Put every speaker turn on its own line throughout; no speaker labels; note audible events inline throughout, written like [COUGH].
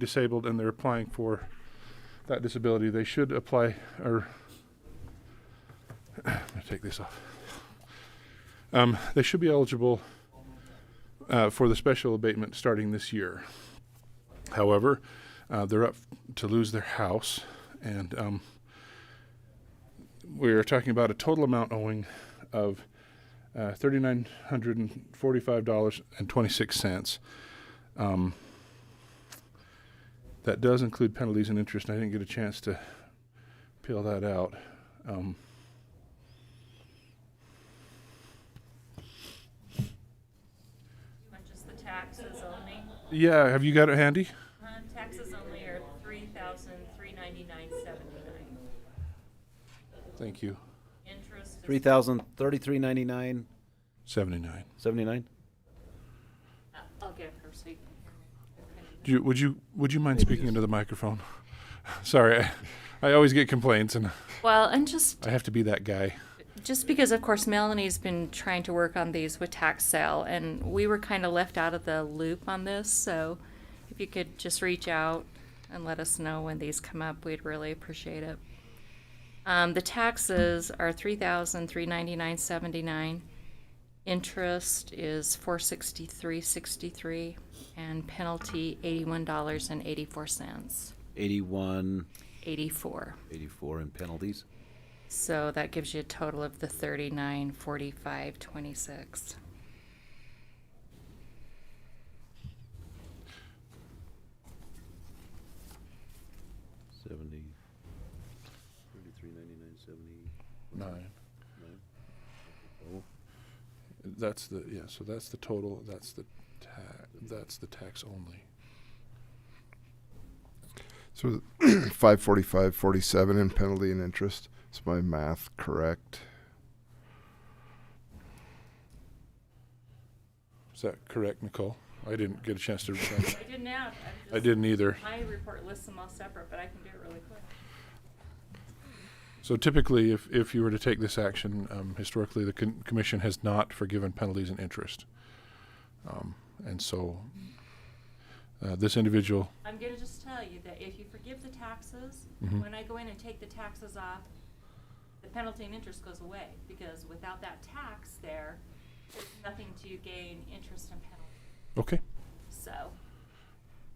disabled and they're applying for that disability, they should apply or [CLEARS THROAT] I'm gonna take this off. Um, they should be eligible uh, for the special abatement starting this year. However, uh, they're up to lose their house, and um, we are talking about a total amount owing of uh, thirty-nine hundred and forty-five dollars and twenty-six cents. Um, that does include penalties and interest. And I didn't get a chance to peel that out. Um,
But just the taxes only,
yeah, have you got it handy?
Uh, taxes only are three thousand three ninety-nine seventy-nine.
Thank you.
Interest
Three
is
thousand thirty-three ninety-nine
Seventy-nine.
seventy-nine.
Uh, I'll get her so you can hear me. Okay.
Do you, would you would you mind speaking into the microphone? [LAUGHS] Sorry, I, I always get complaints, and
Well, and just,
I have to be that guy.
just because of course Melanie's been trying to work on these with tax sale and we were kind of left out of the loop on this, so if you could just reach out and let us know when these come up, we'd really appreciate it. Um, the taxes are three thousand three ninety-nine seventy-nine. Interest is four sixty-three sixty-three and penalty eighty-one dollars and eighty-four cents,
Eighty-one,
eighty-four.
eighty-four in penalties.
So that gives you a total of the thirty-nine, forty-five, twenty-six.
Seventy. Thirty-three ninety-nine seventy.
Nine. That's the yeah. So that's the total. That's the tax. That's the tax only.
So [CLEARS THROAT] five forty-five, forty-seven in penalty and interest. Is my math correct?
Is that correct, Nicole? I didn't get a chance to. Respond.
I didn't add.
I didn't either.
My report lists them all separate, but I can do it really quick.
So typically, if, if you were to take this action, um, historically, the con- commission has not forgiven penalties and interest. Um, and so, uh, this individual,
I'm gonna just tell you that if you forgive the taxes,
Mhm.
when I go in and take the taxes off, the penalty and interest goes away, because without that tax there, there's nothing to gain interest and penalty.
okay.
So,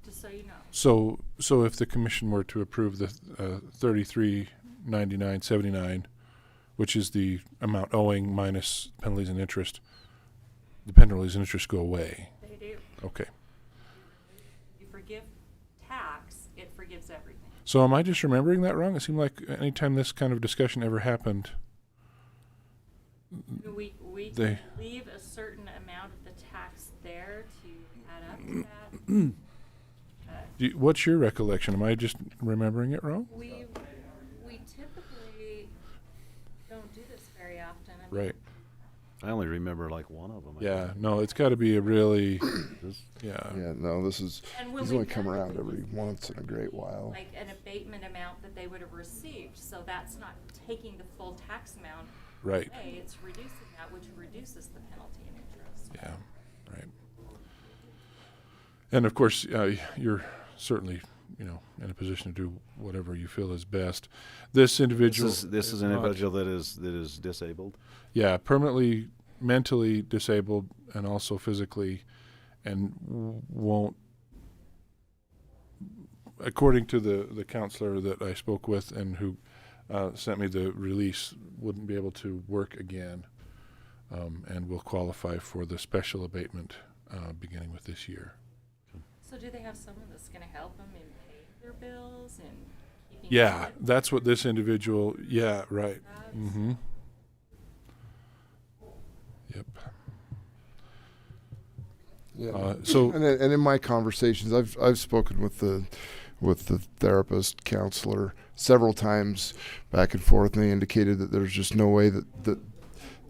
just so you know.
So, so if the commission were to approve the uh, thirty-three ninety-nine seventy-nine, which is the amount owing minus penalties and interest, the penalties and interest go away.
They do.
Okay.
You forgive tax, it forgives everything.
So am I just remembering that wrong? It seemed like anytime this kind of discussion ever happened,
We, we
They-
can leave a certain amount of the tax there to add up to that. but
Do you- What's your recollection? Am I just remembering it wrong?
We, we typically don't do this very often. I mean,
Right.
I only remember like one of them.
Yeah. No, it's got to be a really. Yeah.
Yeah, no, this is,
And when
he's
we
only come
done it,
around
we
every
just-
once in a great while.
Like an abatement amount that they would have received, so that's not taking the full tax amount
Right.
away, it's reducing that, which reduces the penalty and interest.
Yeah. Right. And of course, uh, y- you're certainly, you know, in a position to do whatever you feel is best. This
This
individual.
is, this is an
not-
individual that is, that is disabled.
Yeah, permanently mentally disabled and also physically, and w- won't. According to the the counselor that I spoke with and who uh, sent me the release, wouldn't be able to work again, um, and will qualify for the special abatement uh, beginning with this year.
So do they have someone that's gonna help them in paying their bills and keeping?
Yeah,
up with
that's what this individual. Yeah, right.
that?
Mm-hmm. Yep.
Yeah. [CLEARS THROAT]
Uh, so-
and, in- and in my conversations, I've I've spoken with the with the therapist counselor several times back and forth, and they indicated that there's just no way that that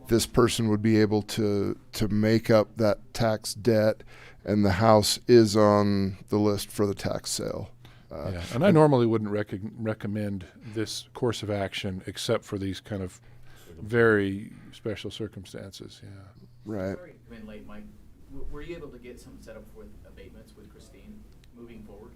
this person would be able to to make up that tax debt, and the house is on the list for the tax sale. Uh,
Yeah, and I normally wouldn't recog recommend this course of action except for these kind of very special circumstances. Yeah.
Right.
Sorry to come in late, Mike. W- Were you able to get something set up with abatements with Christine moving forward?